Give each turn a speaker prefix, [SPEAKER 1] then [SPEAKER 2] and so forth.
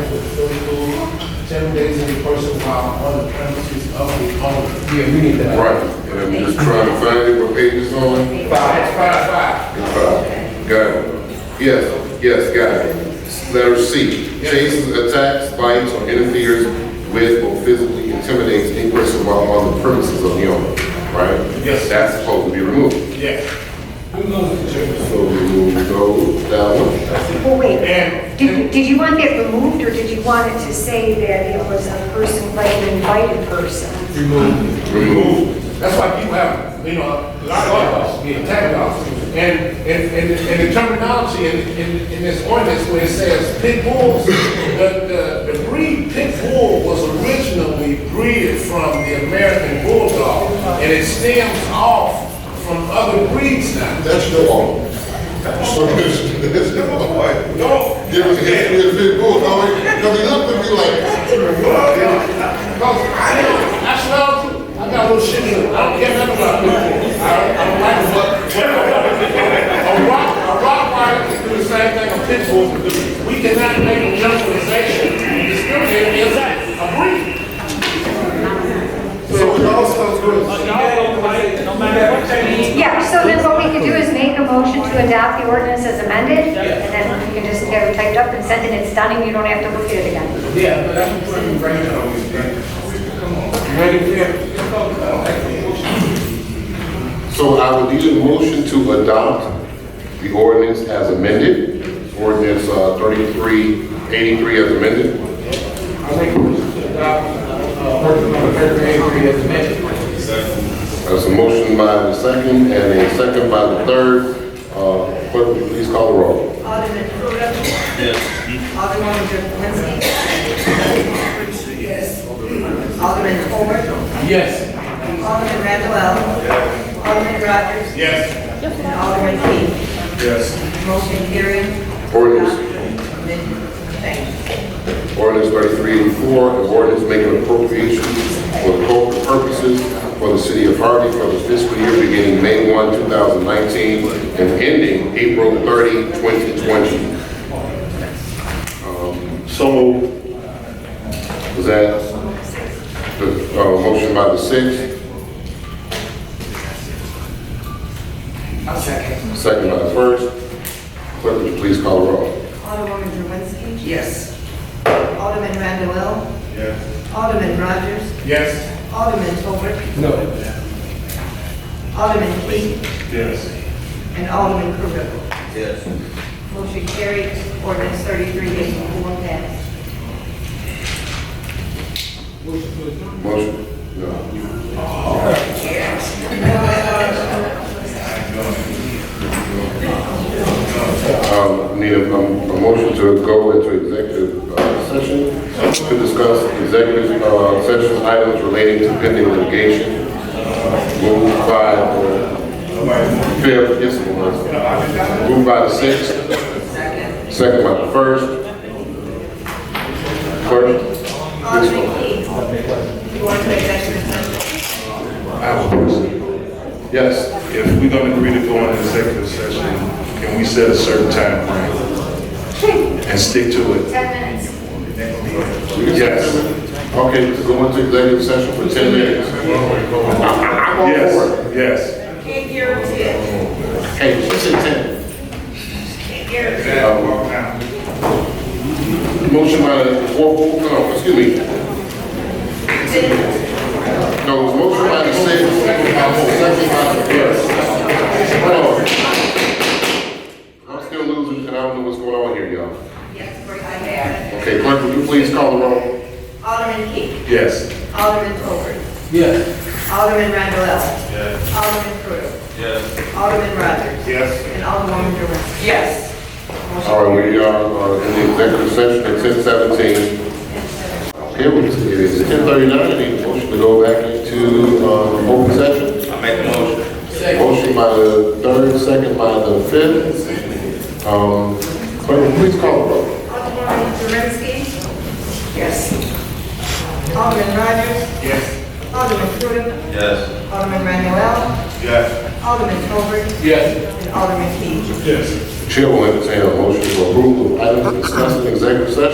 [SPEAKER 1] seven days in person while on the premises of the owner.
[SPEAKER 2] Yeah, we need that.
[SPEAKER 3] Right, and I'm just trying to find it, what page it's on.
[SPEAKER 1] Five, five, five.
[SPEAKER 3] It's five. Got it. Yes, yes, got it. Letter C, chases, attacks, bites, or interferes with or physically intimidates any person while on the premises of the owner, right?
[SPEAKER 1] Yes.
[SPEAKER 3] That's supposed to be removed.
[SPEAKER 1] Yes.
[SPEAKER 3] So we will go down.
[SPEAKER 1] And-
[SPEAKER 4] Well, wait, did, you- did you want that removed, or did you want it to say that it was a person, like an invited person?
[SPEAKER 3] Remove.
[SPEAKER 1] That's why people have, you know, a lot of us, the attack dogs. And, and, and, and the terminology in, in, in this ordinance where it says pit bulls, the, the, the breed pit bull was originally bred from the American bulldog. And it stems off from other breeds now.
[SPEAKER 3] That's your law. That's your, that's your law, right?
[SPEAKER 1] No,
[SPEAKER 3] Give us a history of big bull, because he looked at me like,
[SPEAKER 1] Cause I know, I smell too. I got a little shit in it. I don't care nothing about people. I don't, I don't like what, what I want. A rock, a rock wire can do the same thing a pit bull can do. We cannot make a generalization, and discriminate against a breed.
[SPEAKER 3] so it all sounds good.
[SPEAKER 4] Yeah, so then what we could do is make a motion to adopt the ordinance as amended, and then you can just get it typed up and sent, and it's done, and you don't have to look at it again.
[SPEAKER 1] Yeah, but that's what we're bringing on this
[SPEAKER 3] So I would need a motion to adopt the ordinance as amended, ordinance uh, 3383 as amended.
[SPEAKER 2] I think we should adopt, uh, working on the third as amended.
[SPEAKER 3] There's a motion by the second and a second by the third. Uh, Clerk, will you please call the roll.
[SPEAKER 5] Alderman Rhoda? Yes. Alderman Drakensky? Yes. Alderman Ford?
[SPEAKER 2] Yes.
[SPEAKER 5] Alderman Randall L. Alderman Rogers?
[SPEAKER 1] Yes.
[SPEAKER 5] And Alderman Key?
[SPEAKER 1] Yes.
[SPEAKER 5] Motion carried.
[SPEAKER 3] Ordinance.
[SPEAKER 5] Thank you.
[SPEAKER 3] Ordinance 3384, an ordinance making appropriations for the corporate purposes for the city of Harvey for the fiscal year beginning May 1, 2019, and ending April 30, 2020. Um, So moved. Was that the uh, motion by the sixth? second. Second by the first. Clerk, would you please call the roll?
[SPEAKER 5] Alderman Drakensky?
[SPEAKER 1] Yes.
[SPEAKER 5] Alderman Randall L. Yes. Alderman Rogers?
[SPEAKER 1] Yes.
[SPEAKER 5] Alderman Ford?
[SPEAKER 2] No.
[SPEAKER 5] Alderman Key?
[SPEAKER 1] Yes.
[SPEAKER 5] And Alderman Rhoda? Yes. Motion carried. Ordinance 3384 passed.
[SPEAKER 3] Motion? No. Um, Need a, a motion to go into executive uh, session to discuss executive uh, session items relating to pending litigation. Moved by the fifth, yes, it was. Moved by the sixth. Second by the first. Clerk?
[SPEAKER 5] Alderman Key? You want to executive session?
[SPEAKER 6] I have a question.
[SPEAKER 3] Yes.
[SPEAKER 6] If we're gonna agree to go into executive session, can we set a certain time frame and stick to it?
[SPEAKER 4] 10 minutes.
[SPEAKER 3] Yes. Okay, to go into executive session for 10 minutes. I'm all for it.
[SPEAKER 6] Yes, yes.
[SPEAKER 5] Can't guarantee it.
[SPEAKER 3] Hey, she said
[SPEAKER 5] Can't guarantee
[SPEAKER 3] 10. Um, Motion by, oh, oh, no, excuse me.
[SPEAKER 5] it.
[SPEAKER 3] No, it was motion by the sixth, second by the second by the first. Hold on. I'm still losing, and I don't know what's going on here, y'all.
[SPEAKER 5] Yes, for I have.
[SPEAKER 3] Okay, clerk, would you please call the roll?
[SPEAKER 5] Alderman Key.
[SPEAKER 6] Yes.
[SPEAKER 5] Alderman Hope.
[SPEAKER 2] Yes.
[SPEAKER 5] Alderman Randall L. Yes. Alderman Cruz. Yes. Alderman Rogers.
[SPEAKER 1] Yes.
[SPEAKER 5] And Alderman Jerome. Yes.
[SPEAKER 3] All right, we are uh, in the executive session at ten seventeen. Okay, we- it is ten thirty-nine, I need a motion to go back into, uh, open session. I make the motion. Motion by the third, second by the fifth. Um, clerk, please call the roll.
[SPEAKER 5] Alderman Jerome. Yes. Alderman Rogers.
[SPEAKER 1] Yes.
[SPEAKER 5] Alderman Cruz. Yes. Alderman Randall L.
[SPEAKER 1] Yes.
[SPEAKER 5] Alderman Hope.
[SPEAKER 1] Yes.
[SPEAKER 5] And Alderman Key.
[SPEAKER 1] Yes.
[SPEAKER 3] Chair will entertain a motion for approval of items discussed in executive session.